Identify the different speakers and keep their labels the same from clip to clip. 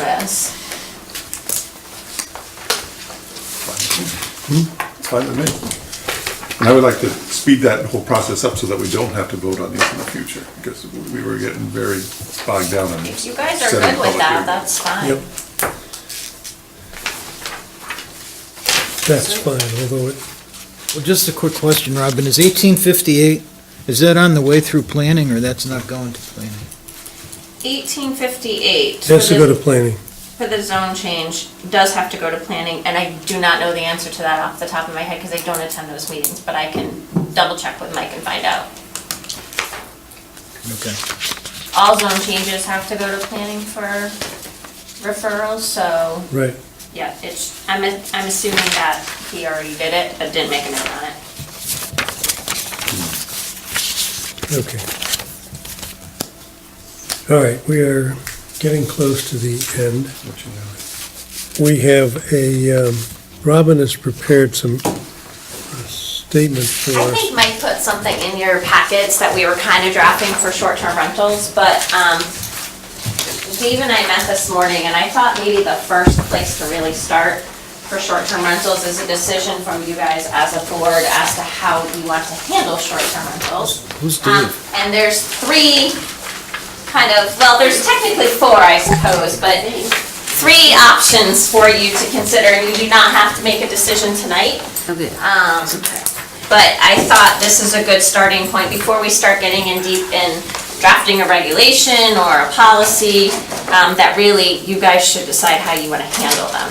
Speaker 1: notice.
Speaker 2: It's Hmm? fine with me. And I would like to speed that whole process up so that we don't have to vote on these in the future, because we were getting very bogged down in.
Speaker 1: If you guys are
Speaker 2: setting
Speaker 1: good with
Speaker 2: public
Speaker 1: that,
Speaker 2: hearing.
Speaker 1: that's fine.
Speaker 2: Yep.
Speaker 3: That's fine, although it, well, just a quick question, Robin, is eighteen fifty-eight, is that on the way through planning, or that's not going to planning?
Speaker 1: Eighteen fifty-eight.
Speaker 4: Has to go to planning.
Speaker 1: For the zone change, does have to go to planning, and I do not know the answer to that off the top of my head, because I don't attend those meetings, but I can double check with Mike and find out.
Speaker 3: Okay.
Speaker 1: All zone changes have to go to planning for referrals, so,
Speaker 4: Right.
Speaker 1: yeah, it's, I'm, I'm assuming that he already did it, but didn't make a note on it.
Speaker 4: Okay. All right, we are getting close to the end.
Speaker 2: What you know.
Speaker 4: We have a, um, Robin has prepared some uh, statements for
Speaker 1: I
Speaker 4: us.
Speaker 1: think Mike put something in your packets that we were kind of drafting for short-term rentals, but um, Dave and I met this morning, and I thought maybe the first place to really start for short-term rentals is a decision from you guys as a board as to how you want to handle short-term rentals.
Speaker 3: Who's
Speaker 1: Um,
Speaker 3: Dave?
Speaker 1: And there's three kind of, well, there's technically four, I suppose, but three options for you to consider, and you do not have to make a decision tonight. Um,
Speaker 5: Okay.
Speaker 1: But I thought this is a good starting point before we start getting in deep in drafting a regulation or a policy, um, that really you guys should decide how you wanna handle them.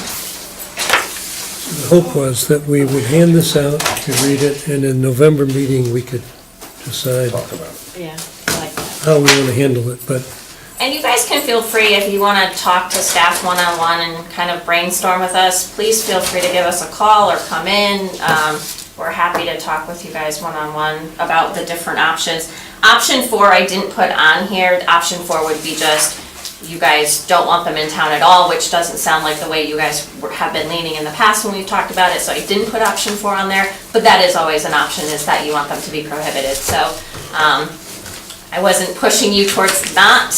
Speaker 4: The hope was that we would hand this out, to read it, and in November meeting, we could decide
Speaker 5: Yeah.
Speaker 4: how we want to handle it, but
Speaker 1: And you guys can feel free, if you wanna talk to staff one-on-one and kind of brainstorm with us, please feel free to give us a call or come in. Um, we're happy to talk with you guys one-on-one about the different options. Option four, I didn't put on here, option four would be just, you guys don't want them in town at all, which doesn't sound like the way you guys were- have been leaning in the past when we've talked about it, so I didn't put option four on there, but that is always an option, is that you want them to be prohibited, so, um, I wasn't pushing you towards not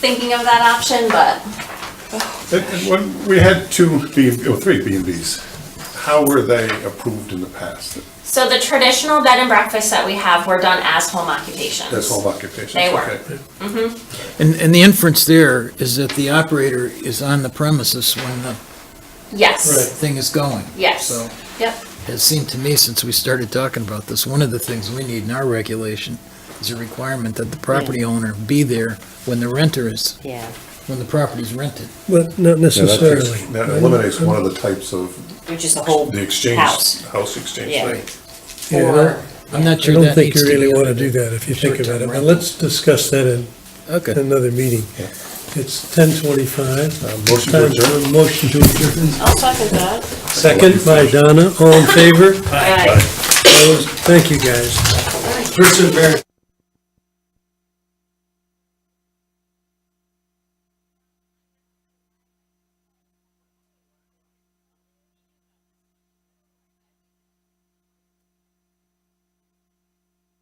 Speaker 1: thinking of that option, but
Speaker 2: And- and when we had two B, and- oh, three B and Bs. How were they approved in the past?
Speaker 1: So the traditional bed and breakfasts that we have were done as home occupations.
Speaker 2: That's all occupations.
Speaker 1: They were.
Speaker 2: okay.
Speaker 3: And, and the inference there is that the operator is on the premises when the
Speaker 1: Yes,
Speaker 3: thing is going. So,
Speaker 1: yes, yep.
Speaker 3: it seemed to me, since we started talking about this, one of the things we need in our regulation is a requirement that the property owner be there when the renter is,
Speaker 5: Yeah.
Speaker 3: when the property's rented.
Speaker 4: but not
Speaker 2: Yeah, that takes-
Speaker 4: necessarily.
Speaker 2: That eliminates one of the types of
Speaker 5: Which is the whole
Speaker 2: the exchange,
Speaker 5: house.
Speaker 2: house exchange
Speaker 5: Yeah.
Speaker 2: thing.
Speaker 4: Yeah,
Speaker 5: Or,
Speaker 3: I'm not
Speaker 4: I
Speaker 3: sure
Speaker 4: don't
Speaker 3: that
Speaker 4: think
Speaker 3: needs
Speaker 4: you
Speaker 3: to be.
Speaker 4: really want to
Speaker 3: under
Speaker 4: do
Speaker 3: the-
Speaker 4: that if you think about it,
Speaker 3: Short-term
Speaker 4: but let's discuss that in
Speaker 3: Okay.
Speaker 4: another meeting.
Speaker 2: Yeah.
Speaker 4: It's ten twenty-five.
Speaker 2: motion to adjourn.
Speaker 4: Motion to
Speaker 1: Oh,
Speaker 4: adjourn.
Speaker 5: I'll second that.
Speaker 4: Second by Donna, all in favor?
Speaker 5: Aye.
Speaker 4: Opposed? Thank you, guys. Richard Barrett.